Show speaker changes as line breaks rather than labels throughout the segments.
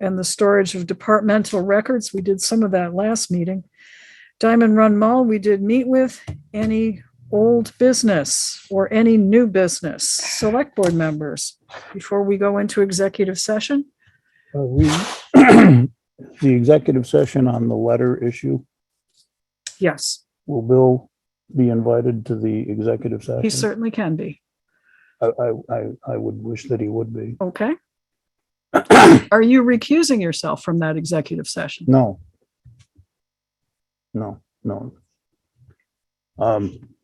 and the storage of departmental records. We did some of that last meeting. Diamond Run Mall, we did meet with any old business or any new business, select board members, before we go into executive session.
Uh, We, the executive session on the letter issue,
Yes,
will Bill be invited to the executive session?
he certainly can be.
I, I, I- I would wish that he would be.
Okay. Are you recusing yourself from that executive session?
No. No, no. Um.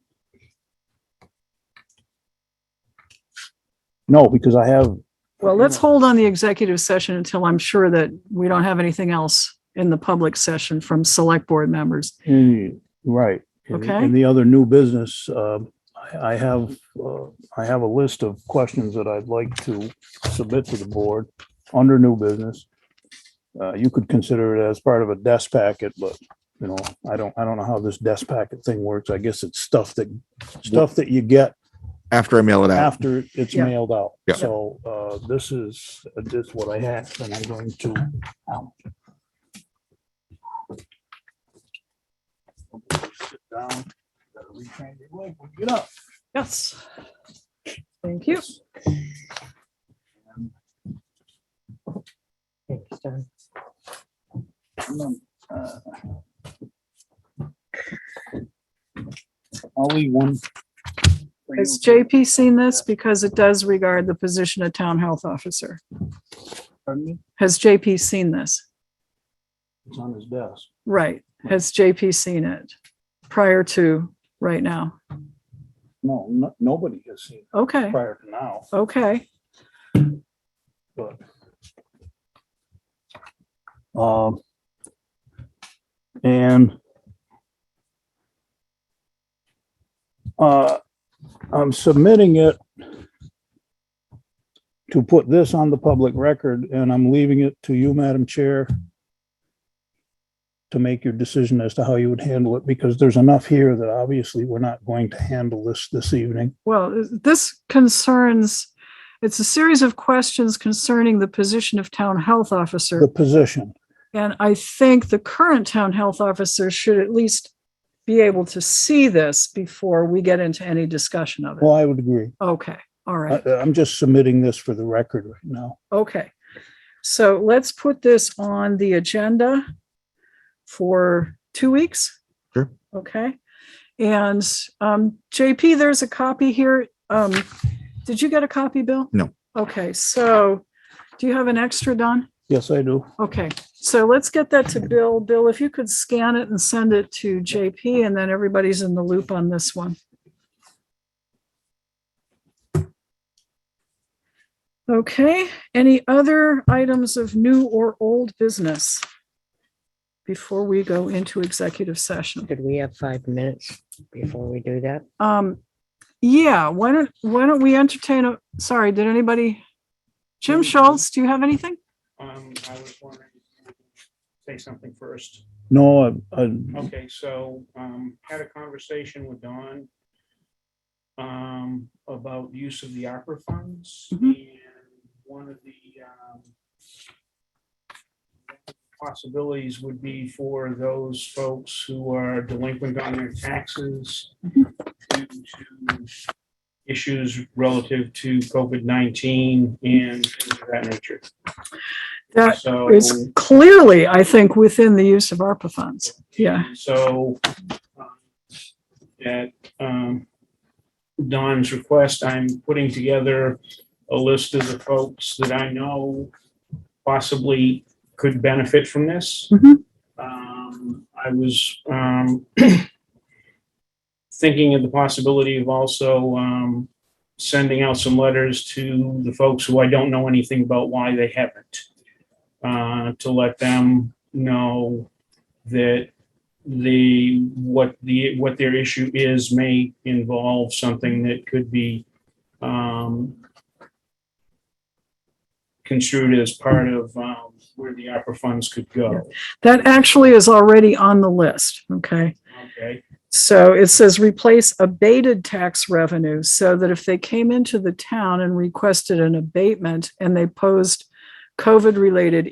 No, because I have.
Well, let's hold on the executive session until I'm sure that we don't have anything else in the public session from select board members.
Mm, Right. And-
Okay.
And the other new business, uh, I, I have, uh, I have a list of questions that I'd like to submit to the board under new business. Uh, you could consider it as part of a desk packet, but, you know, I don't, I don't know how this desk packet thing works. I guess it's stuff that, stuff that you get
after I mail it out.
after it's
Yeah.
mailed out.
Yeah.
So, uh, this is, this is what I have, and I'm going to. um, ow. Sit down, gotta retrain your leg when you Get up.
Yes. Thank you.
Uh, I'll leave one. for
Has
you.
JP seen this? Because it does regard the position of town health officer.
Pardon me?
Has JP seen this?
It's on his desk.
Right. Has JP seen it prior to right now?
No, no, nobody has seen it
Okay,
prior to now.
okay.
but. Um. And. Uh, I'm submitting it. To put this on the public record and I'm leaving it to you, Madam Chair. To make your decision as to how you would handle it, because there's enough here that obviously we're not going to handle this this evening.
Well, this concerns, it's a series of questions concerning the position of town health officer.
The position,
And I think the current town health officer should at least be able to see this before we get into any discussion of it.
well, I would agree.
Okay, all
I,
right,
I'm just submitting this for the record right now.
okay. So let's put this on the agenda for two weeks.
Sure.
Okay. And um, JP, there's a copy here. Um, did you get a copy, Bill?
No.
Okay, so do you have an extra, Don?
Yes, I do.
Okay, so let's get that to Bill. Bill, if you could scan it and send it to JP and then everybody's in the loop on this one. Okay, any other items of new or old business? Before we go into executive session.
Could we have five minutes before we do that?
Um, yeah, why don't, why don't we entertain a, sorry, did anybody? Jim Schultz, do you have anything?
Um, I was wondering, if you could say something first.
No, I, I,
Okay, so, um, had a conversation with Don um, about use of the ARPA funds and
Mhm.
one of the, um, possibilities would be for those folks who are delinquent on their taxes due to issues relative to COVID-19 and things of that nature.
That
So-
It's clearly, I think, within the use of ARPA funds. Yeah,
So um, at um, Don's request, I'm putting together a list of the folks that I know possibly could benefit from this.
Mhm.
Um, I was um, thinking of the possibility of also um, sending out some letters to the folks who I don't know anything about why they haven't. uh, To let them know that the, what the, what their issue is may involve something that could be um, construed as part of um, where the ARPA funds could go.
that actually is already on the list. Okay.
Okay,
So it says replace abated tax revenue so that if they came into the town and requested an abatement and they posed COVID related